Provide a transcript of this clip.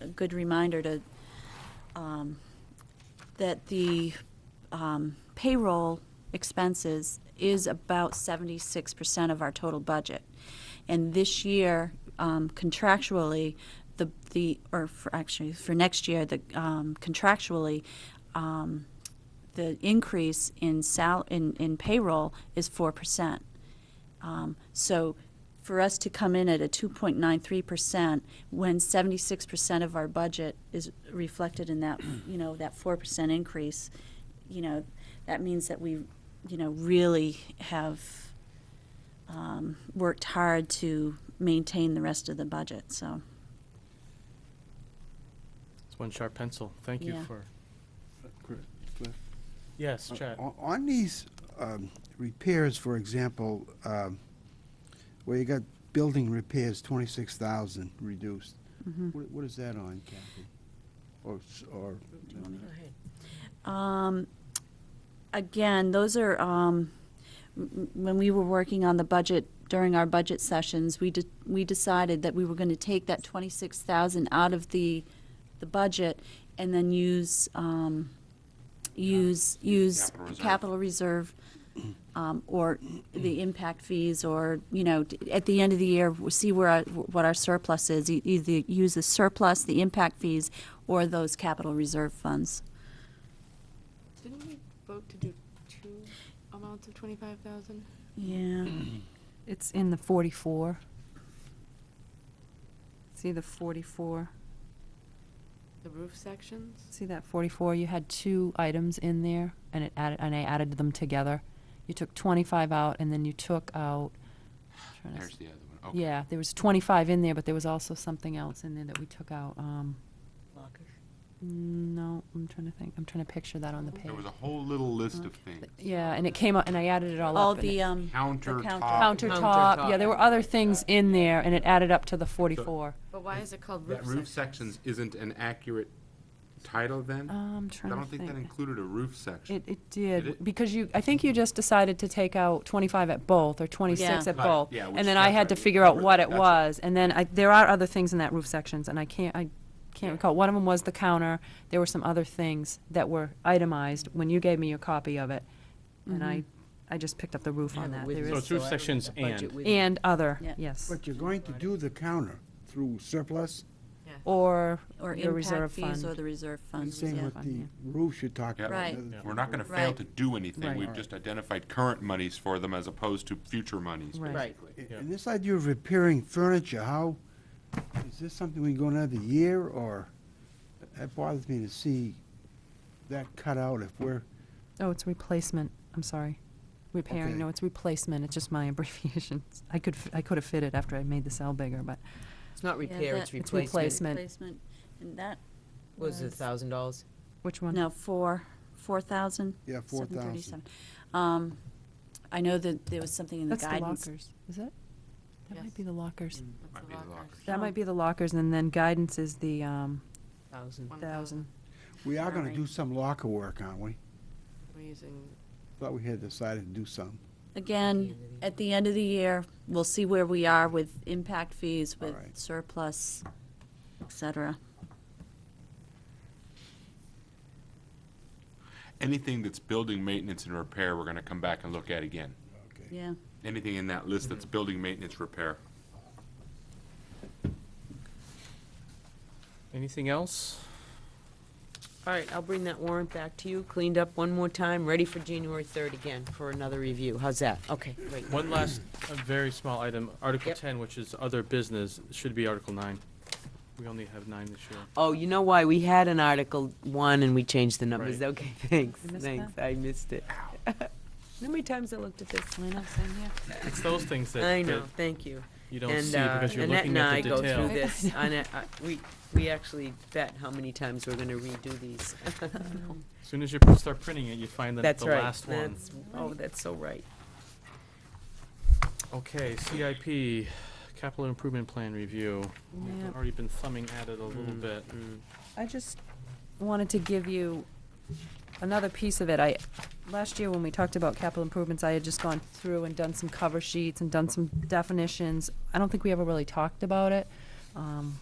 a good reminder to, um, that the um, payroll expenses is about 76% of our total budget. And this year, um, contractually, the, the or for actually, for next year, the um, contractually, um, the increase in sal, in, in payroll is 4%. Um, So for us to come in at a 2.93% when 76% of our budget is reflected in that, you know, that 4% increase, you know, that means that we, you know, really have um, worked hard to maintain the rest of the budget, so. It's one sharp pencil. Thank you Yeah. for, Gr- Cliff? yes, Uh, Chad. o- On these um, repairs, for example, um, where you got building repairs, twenty-six thousand reduced, Mm-hmm. What- what is that on, Kathy? Or, s- or, Um, Again, those are, um, m- m- when we were working on the budget during our budget sessions, we de- we decided that we were going to take that 26,000 out of the, the budget and then use, um, use, use Capital reserve. capital reserve um, or the impact fees or, you know, d- at the end of the year, we'll see where, our- what our surplus is. E- Either use the surplus, the impact fees, or those capital reserve funds. Didn't we vote to do two amounts of twenty-five thousand? Yeah. Mm. It's in the 44. See the 44, The roof sections? see that 44? You had two items in there, and it added, and I added them together. You took 25 out, and then you took out, trying to s- There's the other one. Okay. yeah, there was 25 in there, but there was also something else in there that we took out. um, No, I'm trying to think, I'm trying to picture that on the There page. was a whole little list of things. Yeah, and it came out, and I added it all up. All and it- the, um, Countertop. Countertop, yeah, there were other things in there, and it added up to the 44. But why is it called roof That sections? roof sections isn't an accurate title then? Uh, Um, I'm I trying to don't think that included a roof section. It, it did, Did it? because you, I think you just decided to take out 25 at both, or 26 Yeah. at Right, both. yeah, which- And then I that's had to right, figure out right, what it that's it. was, and then I, there are other things in that roof sections, and I can't, I can't recall. One of them was the counter, there were some other things that were itemized when you gave me your copy of it, and I, Mm-hmm. I just picked up the roof on that. There So is, it's roof sections and. and other, Yeah. yes, but you're going to do the counter through surplus? Oh, or Or your impact reserve fees or fund. the reserve funds, Same yeah. with the roofs you talked Yep. about. Right. another- We're not gonna fail Right. to do anything. Right. We've just identified current monies for them as opposed to future monies, Right. basically. Right. And- Yeah. And this idea of repairing furniture, how, is this something we can go another year, or? That bothers me to see that cut out if we're Oh, it's replacement, I'm sorry. Repairing, Okay. no, it's replacement, it's just my abbreviations. I could, f- I could have fit it after I made the cell bigger, but It's not Yeah, repair, that- it's It's replacement. replacement. Replacement, and that, What Was it a thousand dollars? which one? no, four, four thousand? Yeah, 4,000. Um, I know that there was something in the That's the guidance. lockers, is it? That might Yes. be the lockers. Mm. That's Might the be the lockers. lockers. That Oh. might be the lockers, and then guidance is the, um, Thousand. One thousand. We are gonna Alright. do some locker work, aren't we? We're using, Thought we had decided to do some. Again, at the end of the year, we'll see where we are with impact fees, with Alright. surplus, et cetera. Anything that's building maintenance and repair, we're gonna come back and look at again. Okay. Yeah, Anything in that list that's building maintenance repair. Anything else? All right, I'll bring that warrant back to you, cleaned up one more time, ready for January third again for another review. How's that? Okay, great. One last, a very small item, Article Yep. 10, which is other business, should be Article 9. We only have 9 this year. Oh, you know why? We had an Article One and we changed the numbers. Right. Okay, thanks, You missed thanks. I missed it. How many times I looked at this? I know, same here. It's those things that I know, that thank you. you don't see And uh, because you're Annette looking and I at the go through detail. this. and I- I- We, we actually bet how many times we're gonna redo these. As soon as you start printing it, you find the That's the right. last one. That's- Oh, that's so right. Okay, CIP, Capital Improvement Plan Review. We've Yep. already been thumbing at it a little Hmm. bit. I just wanted to give you another piece of it. I, last year when we talked about capital improvements, I had just gone through and done some cover sheets and done some definitions. I don't think we ever really talked about it. Um,